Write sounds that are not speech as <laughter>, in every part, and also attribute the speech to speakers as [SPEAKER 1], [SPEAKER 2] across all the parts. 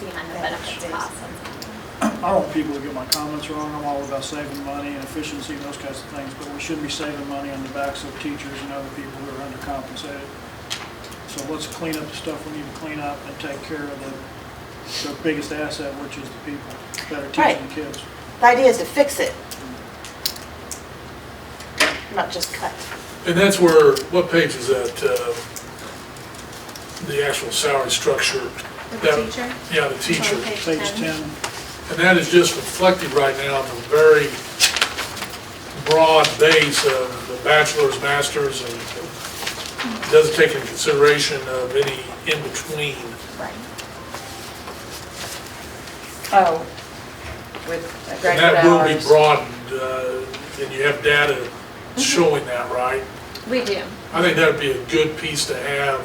[SPEAKER 1] being on the benefits cost.
[SPEAKER 2] I don't want people to get my comments wrong, I'm all about saving money and efficiency and those kinds of things, but we should be saving money on the backs of teachers and other people who are undercompensated. So let's clean up the stuff we need to clean up and take care of the, the biggest asset, which is the people that are teaching
[SPEAKER 3] Right.
[SPEAKER 2] the kids.
[SPEAKER 3] The idea is to fix it, not just cut.
[SPEAKER 4] And that's where, what page is that? uh, The actual salary structure? that-
[SPEAKER 1] teacher?
[SPEAKER 4] Yeah, the teacher.
[SPEAKER 1] Okay.
[SPEAKER 2] Page
[SPEAKER 1] Ten.
[SPEAKER 2] ten,
[SPEAKER 4] And that is just reflected right now on the very broad base of the bachelor's, master's, and doesn't take into consideration of any in-between.
[SPEAKER 1] Right.
[SPEAKER 5] Oh, with a
[SPEAKER 4] And
[SPEAKER 5] graduate
[SPEAKER 4] that will be
[SPEAKER 5] hours.
[SPEAKER 4] broadened, uh, and you have data showing that, right?
[SPEAKER 1] We do.
[SPEAKER 4] I think that'd be a good piece to have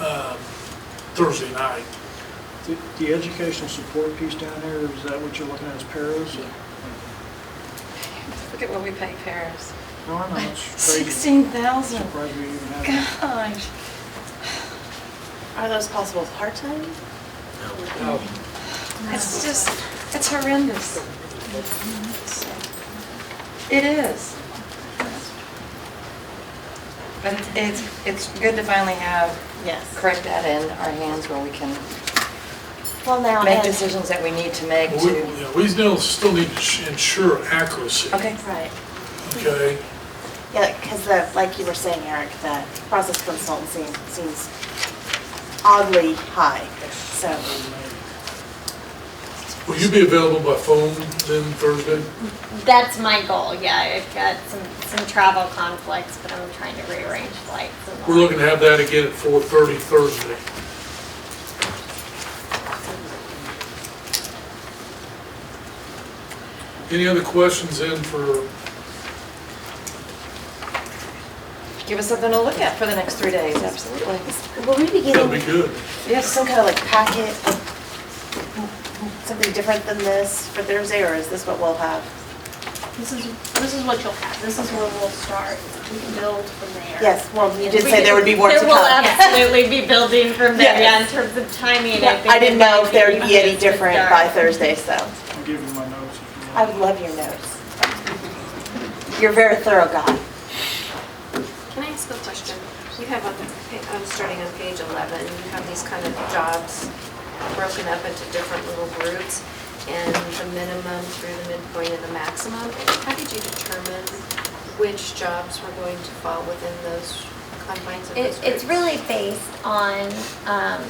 [SPEAKER 4] um, Thursday night.
[SPEAKER 2] the, the educational support piece down there, is that what you're looking at as paras?
[SPEAKER 6] Look at what we pay Paris.
[SPEAKER 2] No, I know, it's crazy.
[SPEAKER 6] Sixteen thousand,
[SPEAKER 2] Surprised we even have that.
[SPEAKER 6] gosh.
[SPEAKER 3] Are those possible part-time?
[SPEAKER 6] It's just, it's horrendous. It is. But it's- it's, it's good to finally have
[SPEAKER 3] Yes.
[SPEAKER 6] correct data in our hands where we can
[SPEAKER 3] Well, now,
[SPEAKER 6] make
[SPEAKER 3] and-
[SPEAKER 6] decisions that we need to make
[SPEAKER 4] Well, We,
[SPEAKER 6] to,
[SPEAKER 4] yeah, we still, still need to ensure accuracy,
[SPEAKER 6] okay,
[SPEAKER 3] Right.
[SPEAKER 4] okay?
[SPEAKER 3] Yeah, because the, like you were saying, Eric, the process consultancy seems oddly high, so.
[SPEAKER 4] Will you be available by phone then Thursday?
[SPEAKER 1] That's my goal, yeah. I've got some, some travel conflicts, but I'm trying to rearrange flights. and
[SPEAKER 4] We're looking to have that again at four thirty Thursday. Any other questions then for,
[SPEAKER 6] give us something to look at for the next three days, absolutely.
[SPEAKER 3] Will we be
[SPEAKER 4] that'd be
[SPEAKER 3] getting
[SPEAKER 4] good.
[SPEAKER 3] some kind of like packet, something different than this for Thursday, or is this what we'll have?
[SPEAKER 1] This is, this is what you'll have. This is where we'll start. We can build from there.
[SPEAKER 3] Yes, well, you did
[SPEAKER 1] We
[SPEAKER 3] say there would be
[SPEAKER 1] <laughs>
[SPEAKER 3] more to
[SPEAKER 1] There will
[SPEAKER 3] come.
[SPEAKER 1] absolutely be building from there, yeah, in
[SPEAKER 3] Yes.
[SPEAKER 1] terms of timing.
[SPEAKER 3] Yeah,
[SPEAKER 1] think
[SPEAKER 3] I didn't
[SPEAKER 1] it
[SPEAKER 3] know if
[SPEAKER 1] might
[SPEAKER 3] there would be any
[SPEAKER 1] easiest to
[SPEAKER 3] different by
[SPEAKER 1] start.
[SPEAKER 3] Thursday, so
[SPEAKER 2] I'll give you my notes if you want.
[SPEAKER 3] I would love your notes. You're a very thorough guy.
[SPEAKER 7] Can I ask a question? You have on, pa- I'm starting on page 11, you have these kind of jobs broken up into different little groups, and the minimum through the midpoint and the maximum. How did you determine which jobs were going to fall within those confines of those
[SPEAKER 1] It, it's
[SPEAKER 7] groups?
[SPEAKER 1] really based on um,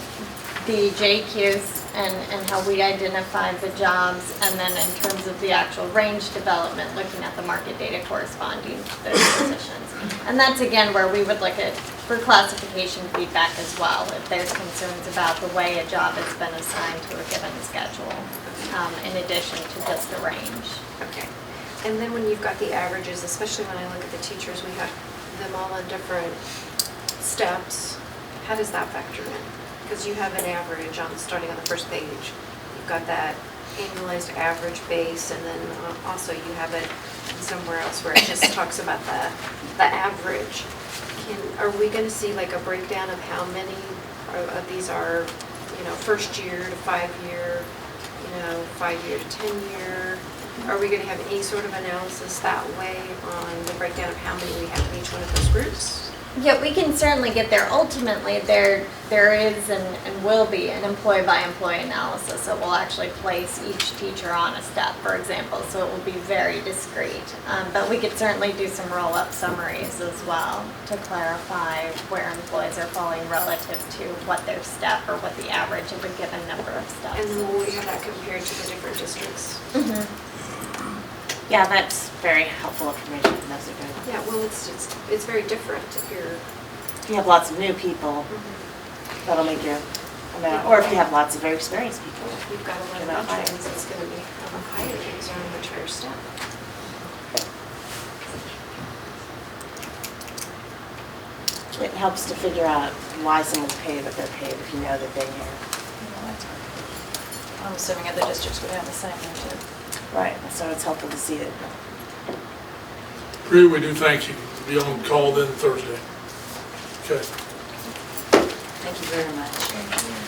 [SPEAKER 1] the JQs and, and how we identify the jobs, and then in terms of the actual range development, looking at the market data corresponding to those positions. And that's again where we would look at for classification feedback as well, if there's concerns about the way a job has been assigned to a given schedule, um, in addition to just the range.
[SPEAKER 7] Okay. And then when you've got the averages, especially when I look at the teachers, we have them all on different steps. How does that factor in? Because you have an average on, starting on the first page. You've got that annualized average base, and then uh, also you have it somewhere else where it just talks about the, the average. Can, are we going to see like a breakdown of how many of of these are, you know, first year to five-year, you know, five-year to 10-year? Are we going to have any sort of analysis that way on the breakdown of how many we have in each one of those groups?
[SPEAKER 1] Yeah, we can certainly get there. Ultimately, there, there is and, and will be an employee-by-employee analysis that will actually place each teacher on a step, for example, so it will be very discrete. Um, but we could certainly do some roll-up summaries as well to clarify where employees are falling relative to what their step or what the average of a given number of steps. Mm-hmm.
[SPEAKER 7] And then will we have that compared to the different districts?
[SPEAKER 3] Yeah, that's very helpful information. Those are good.
[SPEAKER 7] Yeah, well, it's, it's, it's very different if you're,
[SPEAKER 3] If you have lots of new people,
[SPEAKER 7] Mm-hmm.
[SPEAKER 3] that'll make your amount, or if you have lots of very experienced people.
[SPEAKER 7] you've got a lot of
[SPEAKER 3] About high.
[SPEAKER 7] veterans, it's going to be um, higher, these are much higher step.
[SPEAKER 3] It helps to figure out why someone's paid what they're paid if you know that they are.
[SPEAKER 6] I'm assuming other districts would have the same one too.
[SPEAKER 3] Right. So it's helpful to see it.
[SPEAKER 4] Rita, we do thank you. Be on call then Thursday. Okay.
[SPEAKER 6] Thank you very much.